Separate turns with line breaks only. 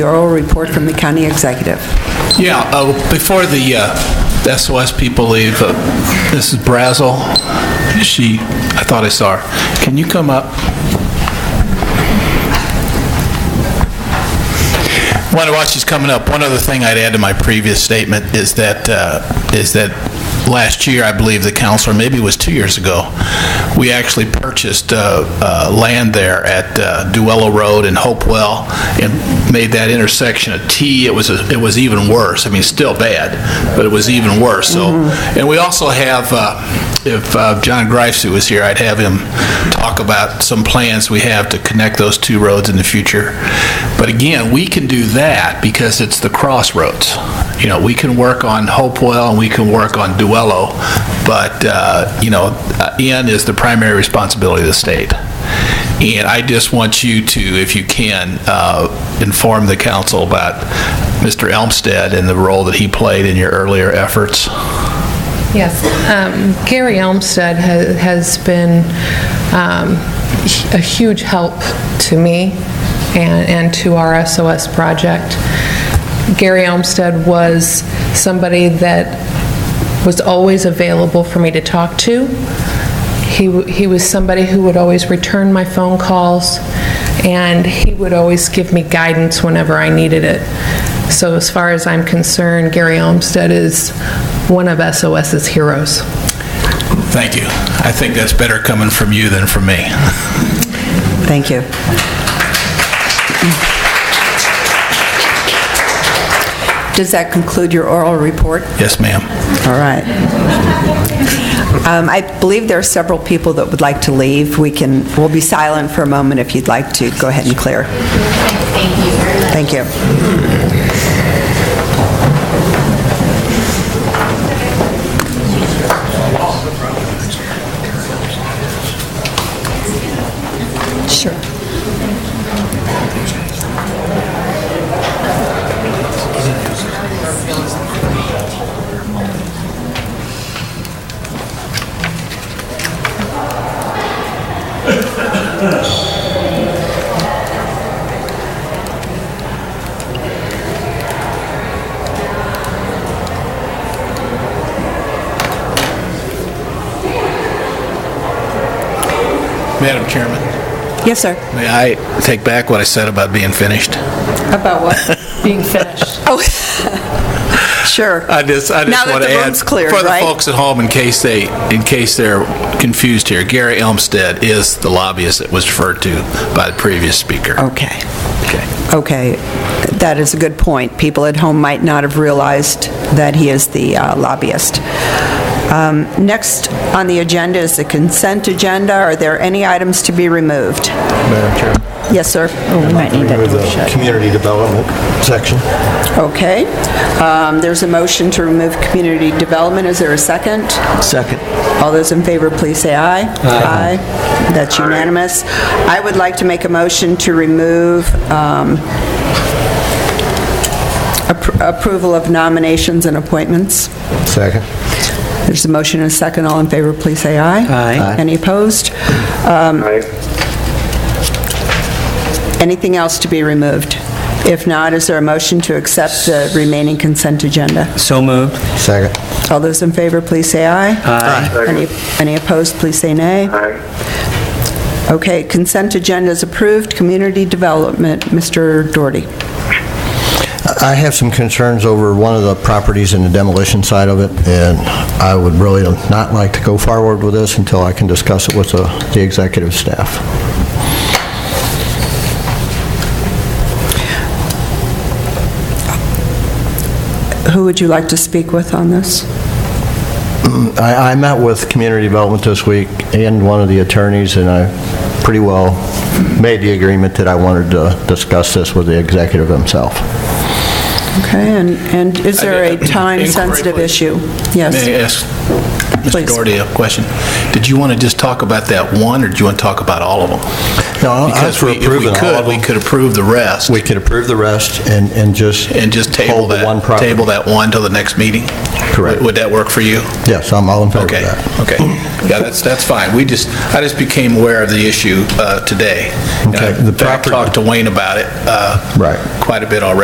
The oral report from the county executive.
Yeah, uh, before the uh, the SOS people leave, uh, Mrs. Brazel, she, I thought I saw her. Can you come up? One, while she's coming up, one other thing I'd add to my previous statement is that, uh, is that last year, I believe the council, or maybe it was two years ago, we actually purchased uh, uh, land there at uh, Duello Road and Hopewell and made that intersection a T. It was, a- it was even worse. I mean, still bad, but it was even worse, so. And we also have, uh, if uh, John Greifsey was here, I'd have him talk about some plans we have to connect those two roads in the future. But again, we can do that because it's the crossroads. You know, we can work on Hopewell and we can work on Duello, but, uh, you know, uh, N is the primary responsibility of the state. And I just want you to, if you can, uh, inform the council about Mr. Elmstead and the role that he played in your earlier efforts.
Yes. um, Gary Elmstead ha- has been um, a huge help to me and and to our SOS project. Gary Elmstead was somebody that was always available for me to talk to. He, w- he was somebody who would always return my phone calls, and he would always give me guidance whenever I needed it. So as far as I'm concerned, Gary Olmsted is one of SOS's heroes.
Thank you. I think that's better coming from you than from me.
Thank you. Does that conclude your oral report?
Yes, ma'am.
All right. Um, I believe there are several people that would like to leave. We can, we'll be silent for a moment if you'd like to. Go ahead and clear. Thank you very much. Thank you.
Madam Chairman,
Yes, sir.
may I take back what I said about being finished?
About what?
Being finished.
Oh, Sure.
I just, I
Now
just
that
want to
the
add.
room's clear,
For the
right?
folks at home, in case they, in case they're confused here, Gary Elmstead is the lobbyist that was referred to by the previous speaker.
Okay.
Okay.
Okay, that is a good point. People at home might not have realized that he is the uh, lobbyist. Um, Next on the agenda is the consent agenda. Are there any items to be removed?
Madam Chair.
Yes, sir? Oh, we might need
Remove the community development section.
Okay. Um, There's a motion to remove community development. Is there a second?
Second.
All those in favor, please say aye. Aye. That's unanimous. I would like to make a motion to remove um, appro- approval of nominations and appointments.
Second.
There's a motion and a second. All in favor, please say aye.
Aye.
Any opposed? Anything else to be removed? If not, is there a motion to accept the remaining consent agenda?
So moved.
Second.
All those in favor, please say aye.
Aye.
Any any opposed, please say nay. Okay, consent agenda is approved. Community development, Mr. Doherty.
I have some concerns over one of the properties and the demolition side of it, and I would really not like to go forward with this until I can discuss it with the the executive staff.
Who would you like to speak with on this?
I I met with Community Development this week and one of the attorneys, and I pretty well made the agreement that I wanted to discuss this with the executive himself.
Okay, and and is there a
Inquiry,
time-sensitive
please.
issue?
May I
Yes.
ask
Please.
Mr. Doherty a question? Did you want to just talk about that one, or do you want to talk about all of them?
No, I'm
Because
for
we-
approving all
If
of
we could, we
them.
could approve the rest,
We could approve the rest and and just...
and just table
hold the
that,
one property.
table that one till the next meeting?
Correct.
Would- Would that work for you?
Yes, I'm all in favor of
Okay,
that.
okay. Yeah, that's, that's fine. We just, I just became aware of the issue uh, today. And I-
Okay, the
In fact,
property-
talked to Wayne about it. uh,
Right.
Quite a bit already.